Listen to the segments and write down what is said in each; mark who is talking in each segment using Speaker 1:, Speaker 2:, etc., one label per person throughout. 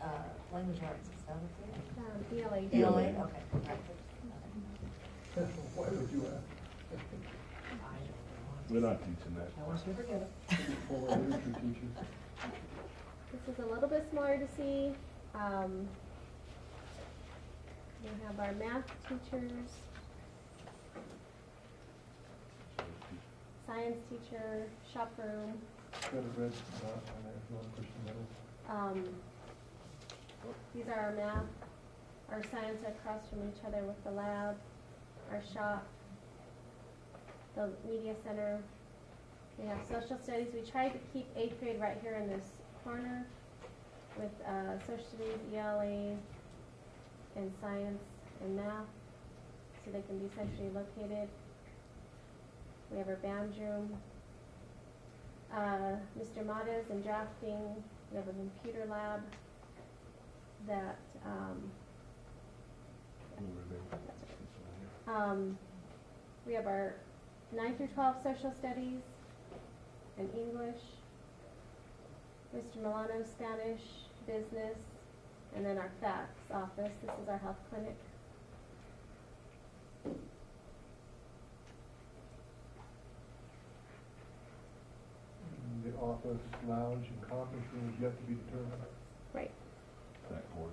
Speaker 1: uh, language arts, is that what
Speaker 2: Um, ELA
Speaker 1: they?
Speaker 2: day.
Speaker 1: ELA,
Speaker 3: ELA.
Speaker 1: okay, right.
Speaker 4: Why would you ask?
Speaker 3: We're not teaching that.
Speaker 1: I wish we forget it.
Speaker 4: Former literature teacher.
Speaker 2: This is a little bit smaller to see. Um, we have our math teachers, science teacher, shop room.
Speaker 4: Got a red dot on there, if you want to push the middle.
Speaker 2: Um, these are our math, our science are across from each other with the lab, our shop, the media center. We have social studies. We tried to keep eighth grade right here in this corner with uh, social studies, ELA, and science and math, so they can be centrally located. We have our band room. Uh, Mr. Mata's in drafting. We have a computer lab that, um, um, we have our nine through twelve social studies and English. Mr. Milano, Spanish, business, and then our fax office. This is our health clinic.
Speaker 4: And The office, lounge, and conference room is yet to be determined.
Speaker 2: Right.
Speaker 3: That quarter.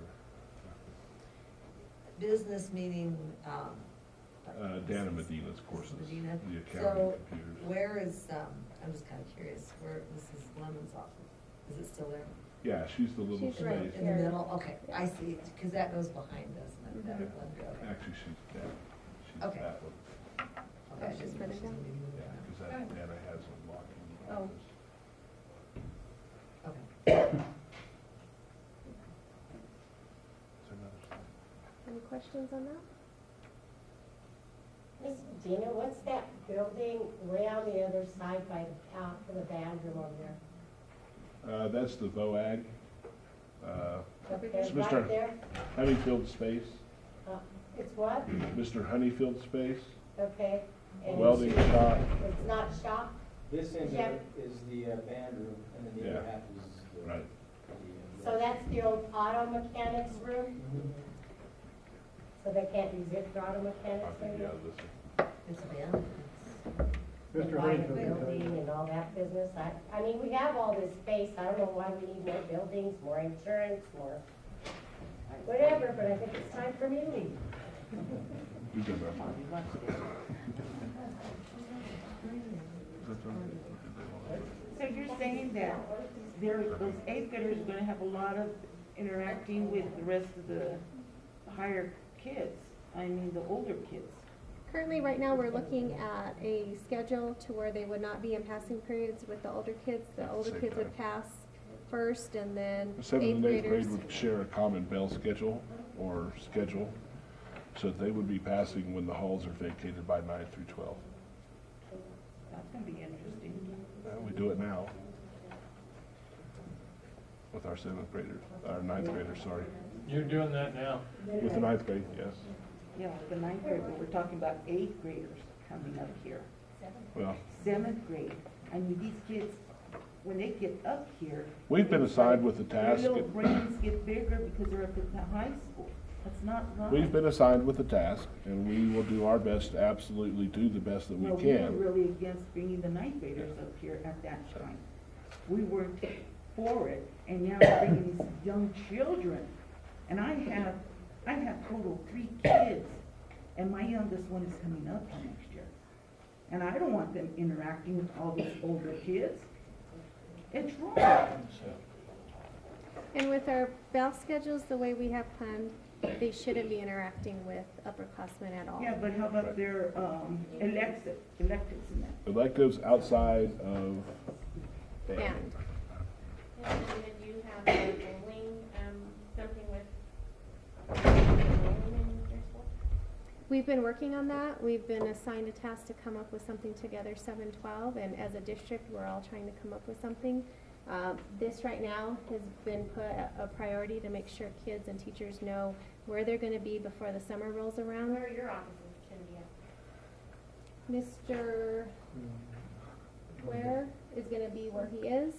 Speaker 1: Business meaning, um. like
Speaker 3: Uh, Dana Medina's courses,
Speaker 1: Medina.
Speaker 3: the accounting
Speaker 1: So
Speaker 3: computers.
Speaker 1: where is, um, I'm just kind of curious, where Mrs. Lemon's office? Is it still there?
Speaker 3: Yeah, she's the little
Speaker 2: She's right
Speaker 3: space.
Speaker 1: In the
Speaker 2: Here.
Speaker 1: middle? Okay, I see, because that goes behind us, and that, that one, okay.
Speaker 3: Actually, she's that, she's
Speaker 1: Okay.
Speaker 3: that one.
Speaker 2: Oh,
Speaker 1: Okay,
Speaker 2: she's
Speaker 1: just-
Speaker 2: further down?
Speaker 3: Yeah, because that, Dana has a lock in the
Speaker 2: Oh.
Speaker 3: office.
Speaker 1: Okay.
Speaker 3: Is there another slide?
Speaker 2: Any questions on that?
Speaker 5: Miss Gina, what's that building way on the other side by the, out for the bathroom over there?
Speaker 3: Uh, that's the VOAG, uh,
Speaker 5: Up there,
Speaker 3: Mr.
Speaker 5: right there?
Speaker 3: Honeyfield space,
Speaker 5: Uh, It's what?
Speaker 3: Mr. Honeyfield space,
Speaker 5: Okay. and
Speaker 3: welding shop,
Speaker 5: It's not shop?
Speaker 6: This end of
Speaker 5: Yeah.
Speaker 6: it is the uh, band room, and then the other
Speaker 3: Yeah.
Speaker 6: half is the.
Speaker 3: right.
Speaker 6: the, uh,
Speaker 5: So that's the old auto mechanics room? So they can't use it for auto
Speaker 3: I
Speaker 5: mechanics
Speaker 3: think, yeah,
Speaker 5: anymore?
Speaker 3: this is.
Speaker 1: It's abandoned.
Speaker 5: And
Speaker 4: Mr.
Speaker 5: buy the
Speaker 4: Honeyfield can tell you.
Speaker 5: Building and all that business. I, I mean, we have all this space. I don't know why we need more buildings, more insurance, more whatever, but I think it's time for me to leave.
Speaker 3: You can wrap up.
Speaker 7: So you're saying that there, those eighth graders are gonna have a lot of interacting with the rest of the higher kids, I mean, the older kids.
Speaker 2: Currently, right now, we're looking at a schedule to where they would not be in passing periods with the older kids. The older
Speaker 3: Same
Speaker 2: kids would
Speaker 3: time.
Speaker 2: pass first and then
Speaker 3: The
Speaker 2: eighth
Speaker 3: Seventh and eighth
Speaker 2: graders.
Speaker 3: grade would share a common bell schedule or schedule, so that they would be passing when the halls are vacated by nine through twelve.
Speaker 7: That's gonna be interesting.
Speaker 3: Uh, We do it now with our seventh graders, our ninth graders, sorry.
Speaker 8: You're doing that now.
Speaker 3: With the ninth grade, yes.
Speaker 7: Yeah, the ninth grade, but we're talking about eighth graders coming up here.
Speaker 3: Well,
Speaker 7: Seventh grade, I mean, these kids, when they get up here.
Speaker 3: we've been assigned with the
Speaker 7: Their
Speaker 3: task,
Speaker 7: little brains get bigger because they're up at the high school. That's not right.
Speaker 3: we've been assigned with the task, and we will do our best, to absolutely do the best that we
Speaker 7: Well, were
Speaker 3: can.
Speaker 7: really against bringing the ninth graders up here at that time. We were for it, and now we're bringing these young children. And I have, I have total three kids, and my youngest one is coming up for next year. And I don't want them interacting with all these older kids. It's wrong.
Speaker 2: And with our bell schedules, the way we have planned, they shouldn't be interacting with upperclassmen at all.
Speaker 7: Yeah, but how about their, um, elected, electives and that?
Speaker 3: Electives outside of
Speaker 2: And,
Speaker 9: And then you have a bowling, um, something with, bowling in your school?
Speaker 2: we've been working on that. We've been assigned a task to come up with something together, seven twelve, and as a district, we're all trying to come up with something. Uh, this right now has been put a a priority to make sure kids and teachers know where they're gonna be before the summer rolls around.
Speaker 9: Where are your offices can be at?
Speaker 4: Mm-hmm.
Speaker 2: Mr. Ware is gonna be where he is.